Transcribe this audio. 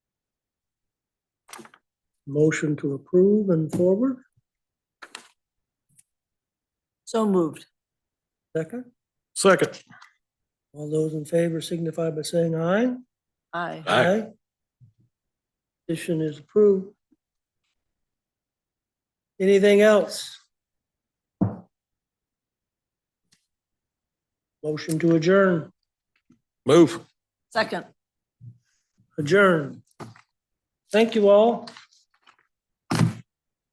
motion to approve and forward? So moved. Second, Second. all those in favor signify by saying aye. Aye. Aye. Petition is approved. Anything else? Motion to adjourn, Move. Second. adjourn. Thank you all.